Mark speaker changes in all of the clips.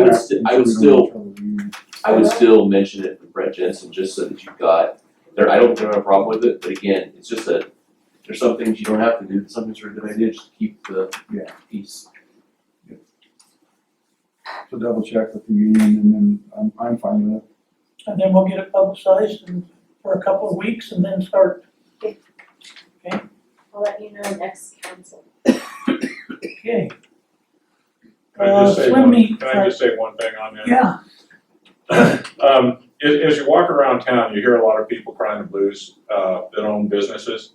Speaker 1: would, sti- I would still, I would still mention it with Brett Jensen, just so that you've got, there, I don't, think I have a problem with it, but again, it's just that there's some things you don't have to do, but some things are a good idea, just keep the
Speaker 2: Yeah.
Speaker 1: peace.
Speaker 2: To double check with the union and then I'm, I'm fine with it.
Speaker 3: And then we'll get it publicized and for a couple of weeks and then start,
Speaker 4: I'll let you know next council.
Speaker 3: okay,
Speaker 5: Can I just
Speaker 3: Uh,
Speaker 5: say
Speaker 3: swim
Speaker 5: one-
Speaker 3: meet,
Speaker 5: Can I just say one thing on that?
Speaker 3: yeah,
Speaker 5: Um, as, as you walk around town, you hear a lot of people crying the blues, uh, that own businesses,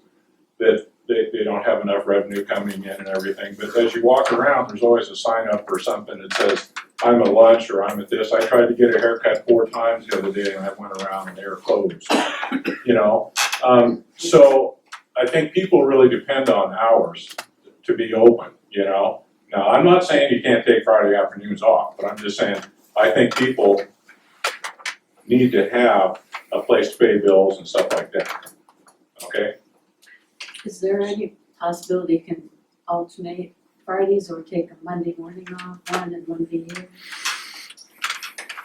Speaker 5: that they, they don't have enough revenue coming in and everything, but as you walk around, there's always a sign up or something that says, I'm at lunch, or I'm at this, I tried to get a haircut four times the other day, and I went around and they were closed, you know? Um, so, I think people really depend on hours to be open, you know? Now, I'm not saying you can't take Friday afternoons off, but I'm just saying, I think people need to have a place to pay bills and stuff like that. Okay,
Speaker 6: Is there any possibility you can alternate Fridays or take a Monday morning off, one and one the year?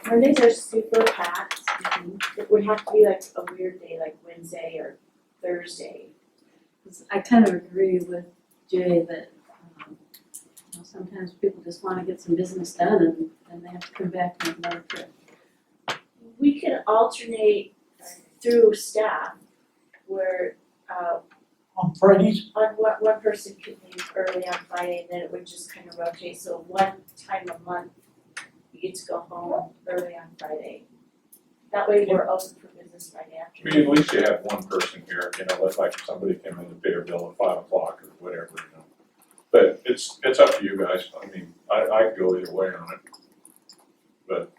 Speaker 4: Mondays are super packed. It would have to be like a weird day, like Wednesday or Thursday.
Speaker 6: 'Cause I kind of agree with Jay that, um, you know, sometimes people just wanna get some business done and then they have to come back and another trip.
Speaker 4: We can alternate through staff where uh
Speaker 3: on Fridays,
Speaker 4: on one one person could leave early on Friday and then it would just kind of rotate, so one time a month you get to go home early on Friday. That way we're open for business Friday
Speaker 5: I
Speaker 4: afternoon.
Speaker 5: mean, at least you have one person here, you know, that's like if somebody came in to pay a bill at five o'clock or whatever, you know. But it's, it's up to you guys, I mean, I, I could go either way on it. But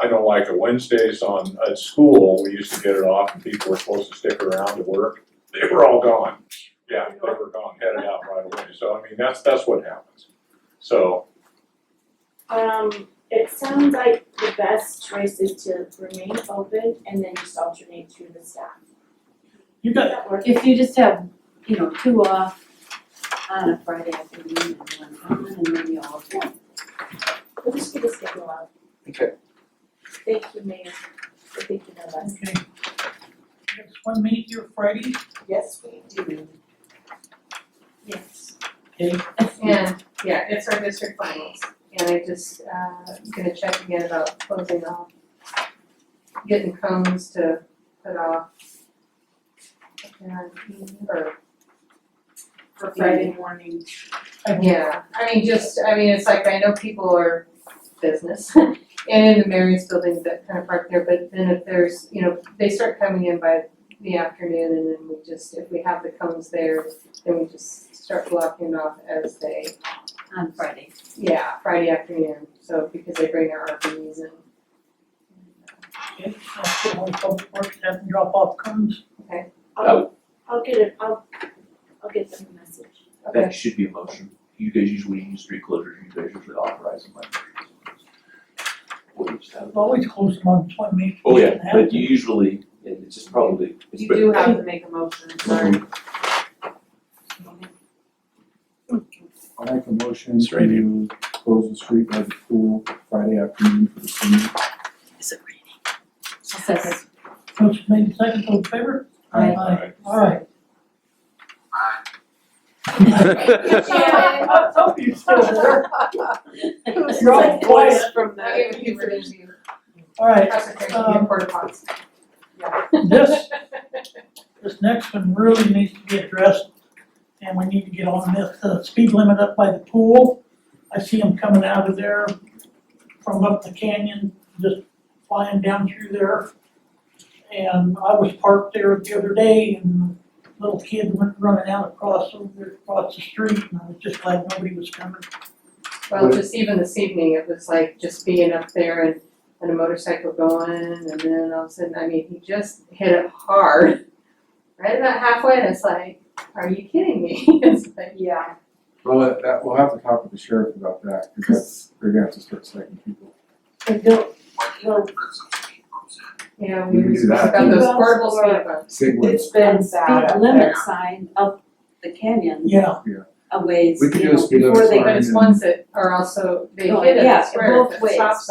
Speaker 5: I don't like it, Wednesdays on, at school, we used to get it off and people were supposed to stick around to work, they were all gone. Yeah, they were gone, headed out right away, so I mean, that's, that's what happens. So,
Speaker 4: Um, it sounds like the best choice is to remain open and then just alternate through the staff.
Speaker 3: you
Speaker 4: Does
Speaker 3: got,
Speaker 4: that work?
Speaker 6: If you just have, you know, two off on a Friday afternoon and one on, and then you all
Speaker 4: We'll just get the schedule out.
Speaker 7: Okay.
Speaker 4: Thank you, Mayor, for thinking of us.
Speaker 3: okay. Next one meet here Friday,
Speaker 4: Yes, we do. Yes.
Speaker 3: okay,
Speaker 8: And, yeah, it's our district finals, and I just, uh, gonna check again about closing off, getting cones to put off. And, or,
Speaker 4: For Friday morning.
Speaker 8: yeah, I mean, just, I mean, it's like, I know people are business, and in the Marriott's building that kind of park there, but then if there's, you know, they start coming in by the afternoon, and then we just, if we have the cones there, then we just start blocking off as they
Speaker 6: on Friday.
Speaker 8: Yeah, Friday afternoon, so because they bring their RVs and.
Speaker 3: okay, I'll put on public works, have them drop off comes,
Speaker 4: I'll, I'll get it, I'll, I'll get them a message.
Speaker 8: Okay,
Speaker 1: That should be a motion, you guys usually use street closures, you guys usually authorize them like. We'll just have-
Speaker 3: I've always closed them on swim meet.
Speaker 1: Oh, yeah, but you usually, it- it's just probably, it's
Speaker 8: you
Speaker 1: better-
Speaker 8: do have to make a motion, sorry.
Speaker 2: I'll make a motion
Speaker 7: It's right here.
Speaker 2: to close the street by the pool Friday afternoon for the summer.
Speaker 6: Second.
Speaker 3: Motion made second, all in favor?
Speaker 6: Aye.
Speaker 3: Aye, alright.
Speaker 8: Yeah.
Speaker 3: Some of you still there, you're all quiet,
Speaker 8: from that. I gave you for you,
Speaker 3: alright,
Speaker 8: Concentrate
Speaker 3: Um,
Speaker 8: on your porta potties.
Speaker 3: this, this next one really needs to be addressed, and we need to get on this, the speed limit up by the pool. I see them coming out of there from up the canyon, just flying down through there. And I was parked there the other day, and a little kid went running out across, over across the street, and I was just glad nobody was coming.
Speaker 8: Well, just even this evening, it was like just being up there and, and a motorcycle going, and then all of a sudden, I mean, he just hit it hard. Right about halfway, and it's like, are you kidding me? It's like, yeah.
Speaker 2: Well, that- that, we'll have to talk with the sheriff about that, cause that's, they're gonna have to start citing people.
Speaker 8: And don't, don't. Yeah,
Speaker 2: We
Speaker 8: we were
Speaker 2: can do
Speaker 8: just
Speaker 2: that.
Speaker 8: about those
Speaker 6: Speed bumps
Speaker 8: portable
Speaker 6: or-
Speaker 8: speed bumps.
Speaker 2: Sig would-
Speaker 6: And Speed limit sign up the canyon
Speaker 3: Yeah,
Speaker 6: a ways,
Speaker 2: We could
Speaker 6: you
Speaker 2: do a
Speaker 6: know,
Speaker 2: speed limit
Speaker 6: before they
Speaker 2: sign.
Speaker 8: But it's ones that are also, they
Speaker 6: Oh,
Speaker 8: hit it,
Speaker 6: yeah,
Speaker 8: it's where
Speaker 6: both
Speaker 8: if it
Speaker 6: ways.
Speaker 8: stops